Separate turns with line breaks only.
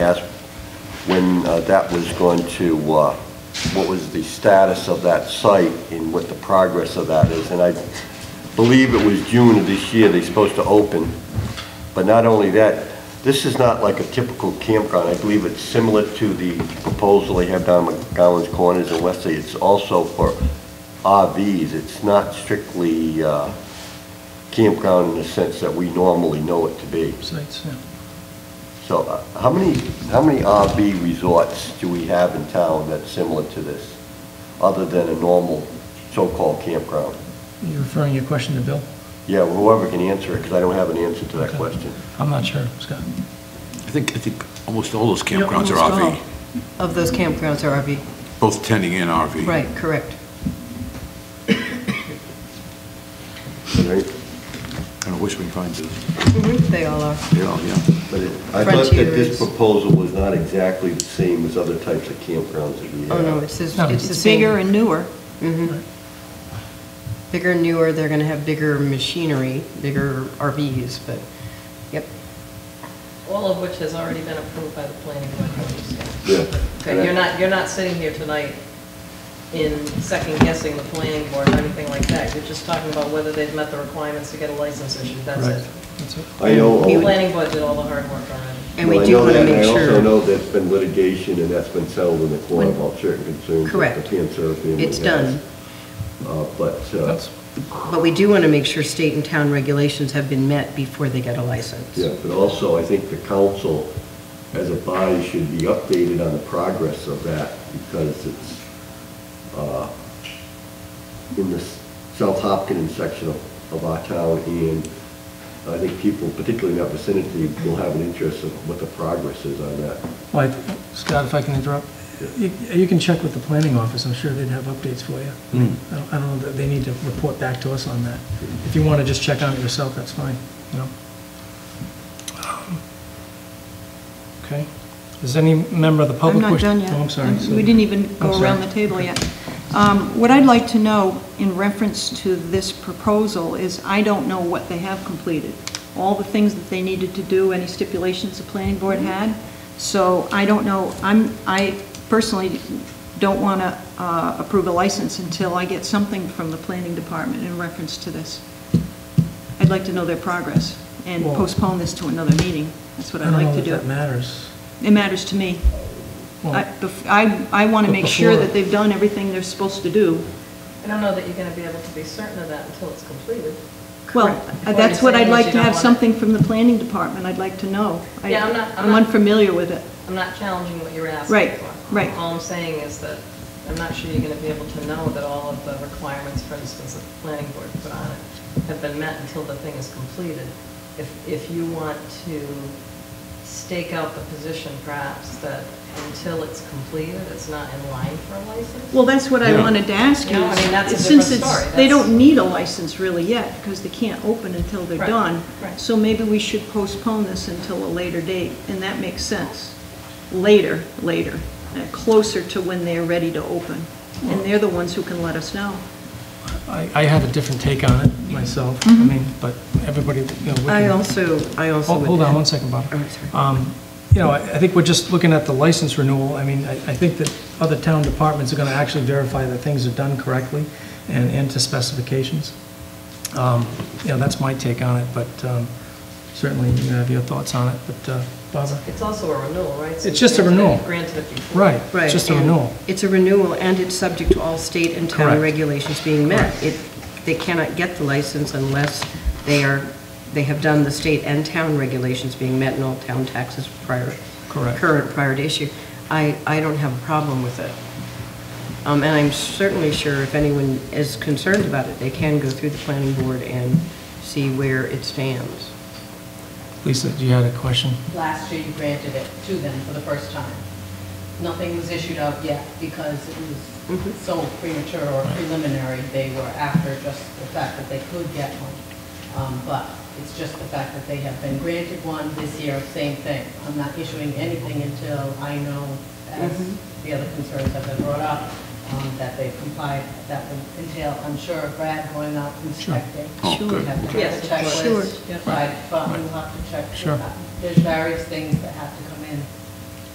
asked when uh, that was going to, uh, what was the status of that site and what the progress of that is. And I believe it was June of this year they're supposed to open. But not only that, this is not like a typical campground. I believe it's similar to the proposal they have down McGowan's Corners in Westlake. It's also for RVs. It's not strictly uh, campground in the sense that we normally know it to be.
sites, yeah.
So uh, how many, how many RV resorts do we have in town that's similar to this, other than a normal so-called campground?
You referring your question to Bill?
Yeah, whoever can answer it, because I don't have an answer to that
Okay.
question.
I'm not sure, Scott.
I think, I think almost all those campgrounds
Almost
are
all
RV,
Of those campgrounds are RV,
both tending and RV.
right, correct.
Right?
And I wish we could find those,
They all are.
they're all, yeah.
But it- I thought that
Frontier
this
is-
proposal was not exactly the same as other types of campgrounds that we have.
Oh, no, it's, it's
No.
it's the
It's
same.
bigger and newer.
Mhm. Bigger and newer, they're gonna have bigger machinery, bigger RVs, but, yep.
All of which has already been approved by the planning board. I understand.
Yeah.
Okay, you're not, you're not sitting here tonight in second guessing the planning board or anything like that. You're just talking about whether they've met the requirements to get a license issued, that's
Right.
it.
That's it.
I know. oh,
The planning board did all the hard work already.
And we
Well, I
do
know
wanna
that,
make
and I also
sure,
know there's been litigation, and that's been settled in the court about certain concerns that the
Correct.
cancer family
It's
has.
done.
Uh, But, uh,
That's-
but we do wanna make sure state and town regulations have been met before they get a license.
yeah, but also, I think the council, as a body, should be updated on the progress of that, because it's uh, in the s- South Hopkins section of of our town, and I think people, particularly in that vicinity, will have an interest of what the progress is on that.
Well, I- Scott, if I can interrupt, you you can check with the planning office, I'm sure they'd have updates for you. I don't- I don't know, that they need to report back to us on that. If you want to just check on it yourself, that's fine, you know? Um, Okay, is any member of the
I'm
public?
not
wish-
done yet.
Oh, I'm sorry. so-
We didn't even
I'm
go
sorry.
around the table yet. Um, What I'd like to know in reference to this proposal is I don't know what they have completed. All the things that they needed to do, any stipulations the planning board
Mm-hmm.
had. So I don't know, I'm, I personally don't want to uh, approve a license until I get something from the planning department in reference to this. I'd like to know their progress and
Well-
postpone this to another meeting. That's what I'd like to
I don't know
do.
if that matters.
It matters to me.
Well-
I- bef- I, I want to
But
make sure
before-
that they've done everything they're supposed to do.
I don't know that you're gonna be able to be certain of that until it's completed.
Well,
Correct.
uh, that's what
Or
I'd
you're saying that
like
you
to
don't
have
want it.
something from the planning department, I'd like to know. I-
Yeah, I'm not- I'm
I'm
not-
unfamiliar with it.
I'm not challenging what you're asking for.
Right, right.
All I'm saying is that I'm not sure you're going to be able to know that all of the requirements, for instance, that the planning board put on it, have been met until the thing is completed. If, if you want to stake out the position perhaps that until it's completed, it's not in line for a license?
Well, that's what I
Yeah.
wanted to ask you.
No, I mean, that's a
is,
different
Since
story.
it's, they
That's-
don't need a license really yet, because they can't open until they're
Right,
done.
right.
So maybe we should postpone this until a later date, and that makes sense. Later, later, uh, closer to when they're ready to open. And they're the ones who can let us know.
I, I have a different take on it myself, I mean, but everybody, you know, we
Mm-hmm. I
can-
also, I also.
Hold
would
hold on
add-
one second, Bob.
Oh, sorry.
Um, You know, I I think we're just looking at the license renewal. I mean, I I think that other town departments are going to actually verify that things are done correctly and and to specifications. Um, You know, that's my take on it, but um, certainly you have your thoughts on it, but uh, Barbara?
It's also a renewal, right? So
It's just a
granted-
renewal.
Granted it before.
Right,
Right,
it's just a
and
renewal.
It's a renewal, and it's subject to all state and town
Correct.
regulations being met. It, they cannot get the license unless they are, they have done the state and town regulations being met and all town taxes prior.
Correct.
Current prior to issue. I, I don't have a problem with it. Um, and I'm certainly sure if anyone is concerned about it, they can go through the planning board and see where it stands.
Lisa, do you have a question?
last year you granted it to them for the first time. Nothing was issued out yet because it was so premature or preliminary. They were after just the fact that they could get one. Um, But it's just the fact that they have been granted one this year, same thing. I'm not issuing anything until I know, as the other concerns have been brought up, um, that they've complied. That would entail, I'm sure, Brad going out inspecting.
Oh,
Sure.
good.
We have to
Yes,
check
of
the
course.
Sure.
checklist, but we'll have to check.
Sure.
There's various things that have to come